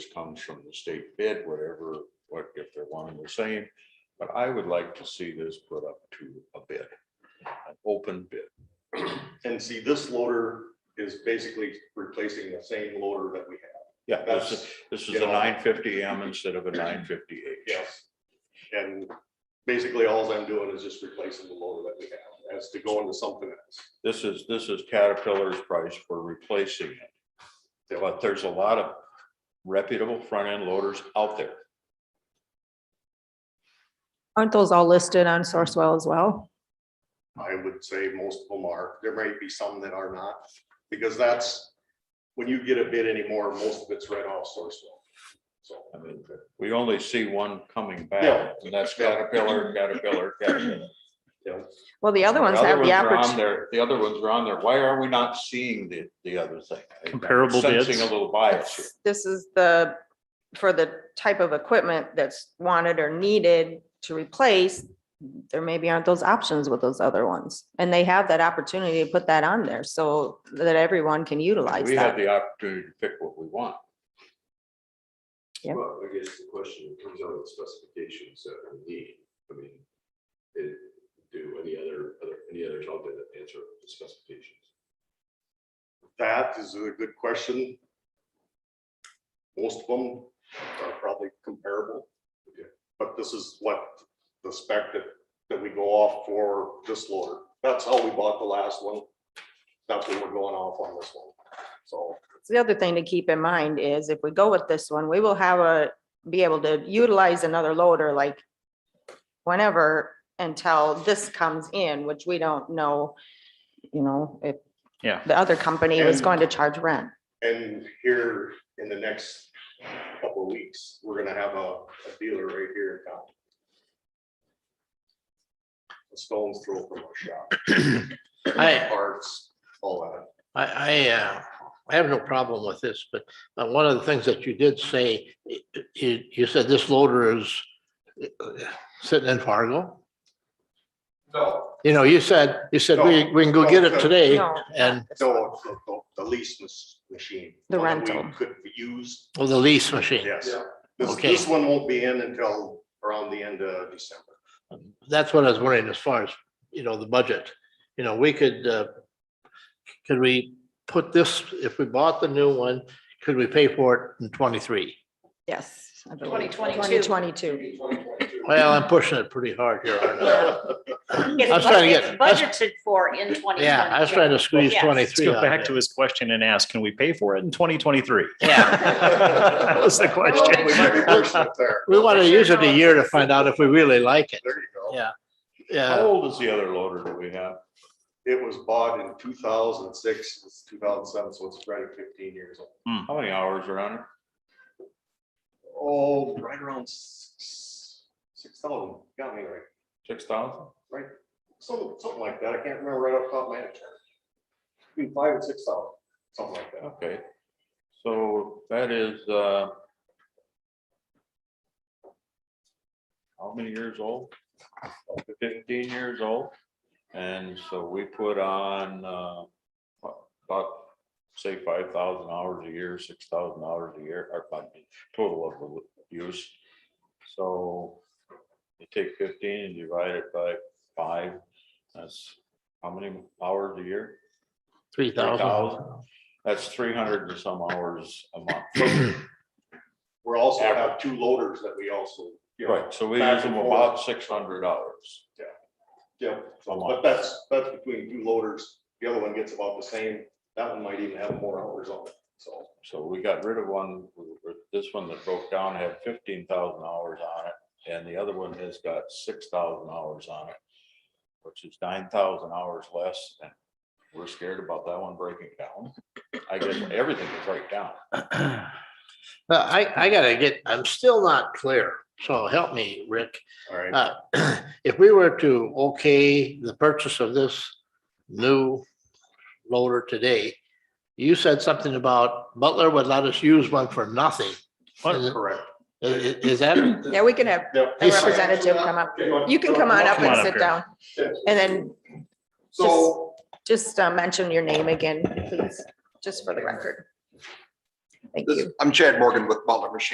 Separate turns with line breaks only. comes from the state bid, whatever, what, if they're one and the same. But I would like to see this put up to a bid, an open bid.
And see, this loader is basically replacing the same loader that we have.
Yeah, this is,
That's,
this is
you
a
know-
nine fifty M instead of a nine fifty H.
yes. And basically, all I'm doing is just replacing the loader that we have, as to go into something else.
This is, this is Caterpillar's price for replacing it. But there's a lot of reputable front end loaders out there.
Aren't those all listed on Sourcewell as well?
I would say most of them are. There might be some that are not, because that's, when you get a bid anymore, most of it's right off Sourcewell. So,
I mean, we only see one coming
Yeah.
back, and that's Caterpillar, Caterpillar, Caterpillar.
yeah,
Well, the other ones have the
are on
opportunity.
there- The other ones are on there. Why are we not seeing the, the other thing?
Comparable bids.
Sensing a little bias here.
This is the, for the type of equipment that's wanted or needed to replace, there maybe aren't those options with those other ones. And they have that opportunity to put that on there so that everyone can utilize
We have
that.
the opportunity to pick what we want.
Yep.
Well, I guess the question comes out of the specifications that we need, I mean, it, do any other, other, any others out there that answer the specifications?
that is a good question. Most of them are probably comparable. But this is what the spec that, that we go off for this loader. That's how we bought the last one. That's what we're going off on this one. So,
The other thing to keep in mind is if we go with this one, we will have a, be able to utilize another loader like whenever until this comes in, which we don't know, you know, if
Yeah.
the other company was
And-
going to charge rent.
and here in the next couple of weeks, we're gonna have a, a dealer right here in town. A stone's throw from our shop.
I-
Parts, all that.
I, I, uh, I have no problem with this, but uh, one of the things that you did say, i- i- you, you said this loader is uh, sitting in Fargo.
No,
You know, you said, you said, we, we can go get it today
No,
and,
So the- the- the lease mas- machine.
The
one that we
rental.
Could use,
oh, the lease machine.
yes. This,
Okay.
this one won't be in until around the end of December.
That's what I was wondering as far as, you know, the budget. You know, we could, uh, could we put this, if we bought the new one, could we pay for it in twenty-three?
yes. I believe.
2022.
2022.
Well, I'm pushing it pretty hard here, aren't I?
It's
I was trying to get-
budget- budgeted for in twenty.
Yeah, I was trying to squeeze
Yes.
Let's
twenty-three.
go
out
back
there.
to his question and ask, can we pay for it in twenty twenty-three?
Yeah.
That was the question.
We might be pushing it there.
We want to use it a year to find out if we really like it.
There you go.
Yeah.
How
Yeah,
old is the other loader that we have?
It was bought in two thousand and six, it's two thousand and seven, so it's right at fifteen years old.
How many hours are on it?
Oh, right around six, six thousand, got me right,
Six thousand?
right? Something, something like that. I can't remember right off the top of my head. Between five and six thousand, something like that.
Okay. So that is, uh, how many years old? Fifteen years old. And so we put on, uh, what, about, say, five thousand hours a year, six thousand hours a year, or about the total of the use. So you take fifteen and divide it by five, that's how many hours a year?
three thousand.
3,000. That's three hundred and some hours a month.
We're also have two loaders that we also. you know,
Right, so we use them about six hundred hours
Yeah,
a
but
month.
that's, that's between two loaders. The other one gets about the same. That one might even have more hours on it, so.
So we got rid of one, this one that broke down had fifteen thousand hours on it, and the other one has got six thousand hours on it, which is nine thousand hours less, and we're scared about that one breaking down. I guess everything will break down.
Now, I, I gotta get, I'm still not clear, so help me, Rick.
All right.
Uh, If we were to okay the purchase of this new loader today, you said something about Butler would let us use one for nothing. Is,
Correct.
is- is that?
Yeah, we can have
Yep.
a representative come up. You can come on up
Come on
and
up
sit
here.
down and then
So
just uh, mention your name again, please, just for the record.
Thank
This-
you.
I'm Chad Morgan with Butler Machine